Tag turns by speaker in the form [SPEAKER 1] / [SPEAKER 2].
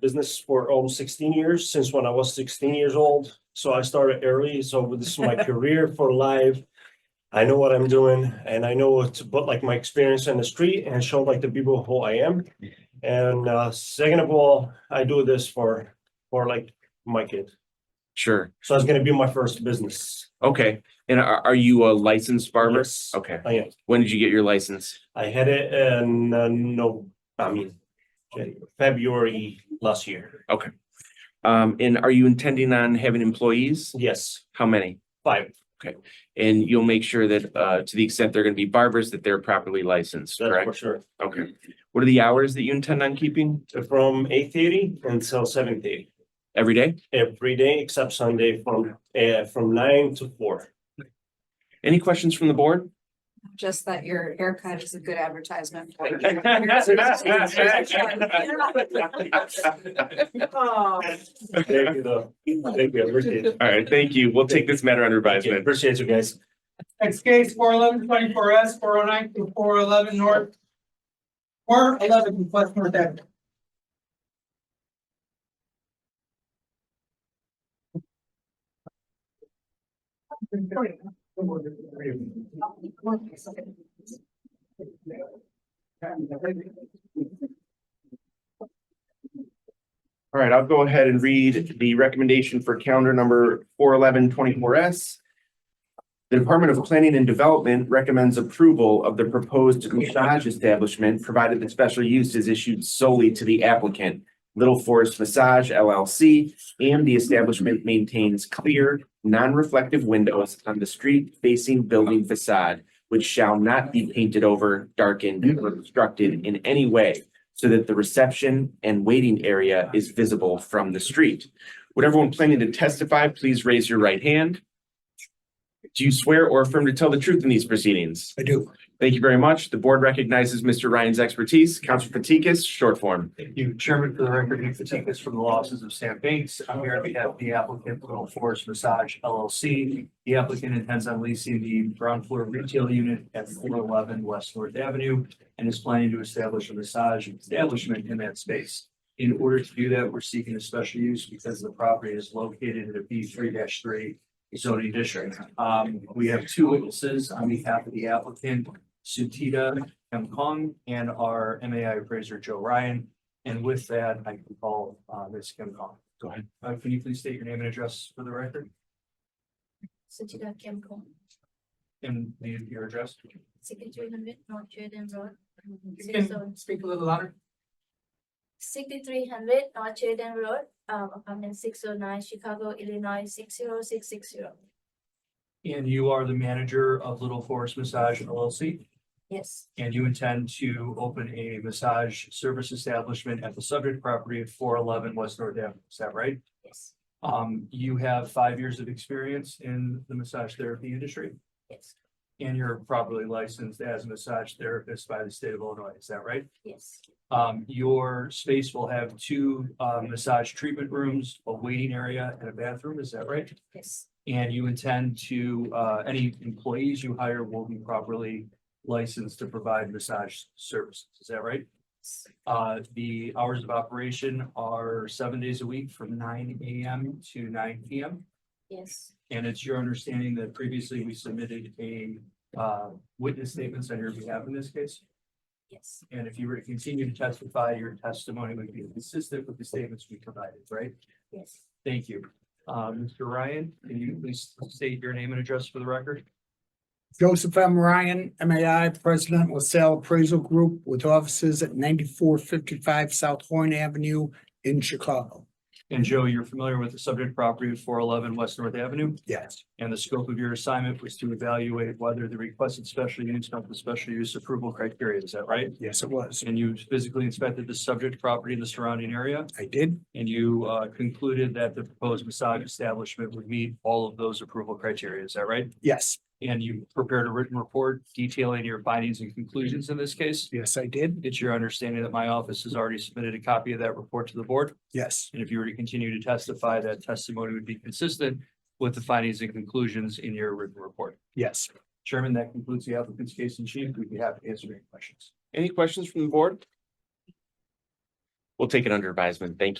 [SPEAKER 1] business for almost sixteen years, since when I was sixteen years old. So I started early, so this is my career for life. I know what I'm doing and I know what to put like my experience in the street and show like the people who I am. And uh, second of all, I do this for, for like my kid.
[SPEAKER 2] Sure.
[SPEAKER 1] So it's gonna be my first business.
[SPEAKER 2] Okay. And are, are you a licensed barber?
[SPEAKER 1] Yes,
[SPEAKER 2] Okay.
[SPEAKER 1] I am.
[SPEAKER 2] When did you get your license?
[SPEAKER 1] I had it in, uh, no, I mean, February last year.
[SPEAKER 2] Um, and are you intending on having employees?
[SPEAKER 1] Yes,
[SPEAKER 2] How many?
[SPEAKER 1] five.
[SPEAKER 2] And you'll make sure that, uh, to the extent they're gonna be barbers, that they're properly licensed,
[SPEAKER 1] That's for
[SPEAKER 2] correct?
[SPEAKER 1] sure.
[SPEAKER 2] Okay. What are the hours that you intend on keeping
[SPEAKER 1] From eight thirty until seven thirty,
[SPEAKER 2] every day?
[SPEAKER 1] every day except Sunday from, uh, from nine to four.
[SPEAKER 2] Any questions from the board?
[SPEAKER 3] Just that your haircut is a good advertisement. for you.
[SPEAKER 2] All
[SPEAKER 3] Oh,
[SPEAKER 1] Thank you, though. Thank you, I appreciate it.
[SPEAKER 2] right, thank you. We'll take this matter under
[SPEAKER 1] Thank you,
[SPEAKER 2] advisement.
[SPEAKER 1] appreciate you guys.
[SPEAKER 4] Next case, four eleven twenty-four S, four oh nine through four eleven north. Four eleven West North Avenue.
[SPEAKER 2] All right, I'll go ahead and read the recommendation for calendar number four eleven twenty-four S. The Department of Planning and Development recommends approval of the proposed massage establishment, provided that special use is issued solely to the applicant. Little Forest Massage LLC, and the establishment maintains clear, non-reflective windows on the street-facing building facade, which shall not be painted over, darkened, or obstructed in any way so that the reception and waiting area is visible from the street. Would everyone planning to testify, please raise your right hand? Do you swear or affirm to tell the truth in these proceedings?
[SPEAKER 5] I do.
[SPEAKER 2] Thank you very much. The board recognizes Mr. Ryan's expertise. Counselor Fatikas, short form.
[SPEAKER 6] Thank you, Chairman, for the record, you fatigue us from the losses of Sam Bates. I'm here on behalf of the applicant, Little Forest Massage LLC. The applicant intends on leasing the ground floor retail unit at four eleven West North Avenue and is planning to establish a massage establishment in that space. In order to do that, we're seeking a special use because the property is located in a B three three zoning district. Um, we have two witnesses on behalf of the applicant, Sutita M. Kong and our MAI appraiser, Joe Ryan. And with that, I can call uh Ms. Kim Kong.
[SPEAKER 2] Go ahead.
[SPEAKER 6] Uh, can you please state your name and address for the record
[SPEAKER 7] Suchida Kim Kong,
[SPEAKER 6] and the your address?
[SPEAKER 7] sixty-three hundred North Sheridan Road.
[SPEAKER 4] You can speak a little louder.
[SPEAKER 7] Sixty-three hundred North Sheridan Road, um, apartment six oh nine, Chicago, Illinois, six zero six six zero.
[SPEAKER 6] And you are the manager of Little Forest Massage LLC,
[SPEAKER 7] Yes,
[SPEAKER 6] and you intend to open a massage service establishment at the subject property at four eleven West North Avenue, is that right?
[SPEAKER 7] yes,
[SPEAKER 6] Um, you have five years of experience in the massage therapy industry,
[SPEAKER 7] yes,
[SPEAKER 6] and you're properly licensed as a massage therapist by the state of Illinois, is that right?
[SPEAKER 7] yes,
[SPEAKER 6] Um, your space will have two, uh, massage treatment rooms, a waiting area and a bathroom, is that right?
[SPEAKER 7] yes,
[SPEAKER 6] And you intend to, uh, any employees you hire will be properly licensed to provide massage services, is that right?
[SPEAKER 7] yes,
[SPEAKER 6] Uh, the hours of operation are seven days a week from nine AM to nine PM.
[SPEAKER 7] yes,
[SPEAKER 6] And it's your understanding that previously we submitted a, uh, witness statements on your behalf in this case?
[SPEAKER 7] yes,
[SPEAKER 6] And if you were to continue to testify, your testimony would be consistent with the statements we provided, right?
[SPEAKER 7] yes.
[SPEAKER 6] Thank you. Uh, Mr. Ryan, can you please state your name and address for the record?
[SPEAKER 5] Joseph M. Ryan, MAI, President, LaSalle Appraisal Group with offices at ninety-four fifty-five South Horn Avenue in Chicago.
[SPEAKER 6] And Joe, you're familiar with the subject property of four eleven West North Avenue,
[SPEAKER 5] Yes.
[SPEAKER 6] and the scope of your assignment was to evaluate whether the requested special use met the special use approval criteria, is that right?
[SPEAKER 5] Yes, it was.
[SPEAKER 6] And you physically inspected the subject property and the surrounding area,
[SPEAKER 5] I did.
[SPEAKER 6] and you uh, concluded that the proposed massage establishment would meet all of those approval criteria, is that right?
[SPEAKER 5] Yes.
[SPEAKER 6] And you prepared a written report detailing your findings and conclusions in this case.
[SPEAKER 5] Yes, I did.
[SPEAKER 6] It's your understanding that my office has already submitted a copy of that report to the board,
[SPEAKER 5] Yes.
[SPEAKER 6] and if you were to continue to testify, that testimony would be consistent with the findings and conclusions in your written report.
[SPEAKER 5] Yes.
[SPEAKER 6] Chairman, that concludes the applicant's case in chief. We'd be happy to answer any questions.
[SPEAKER 2] Any questions from the board? We'll take it under advisement. Thank you.